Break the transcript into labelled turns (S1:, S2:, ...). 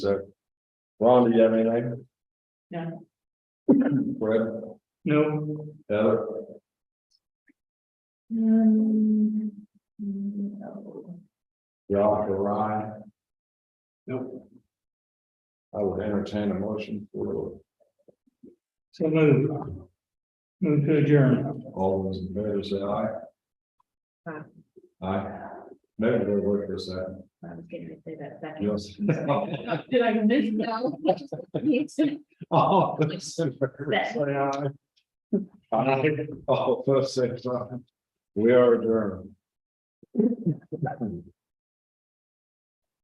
S1: So, Ron, do you have anything?
S2: No.
S1: Brett,
S3: No,
S1: Heather,
S2: Um, no.
S1: Ralph, or Ryan,
S3: no,
S1: I would entertain a motion for
S3: so move. Move to adjourn.
S1: all those in favor, say aye.
S2: Aye.
S1: Aye. Maybe they'll work this out.
S2: I was getting to say that second.
S1: Yes.
S2: Did I miss that?
S1: All those in favor,
S2: That-
S1: say aye. Aye. All those say aye. We are adjourned.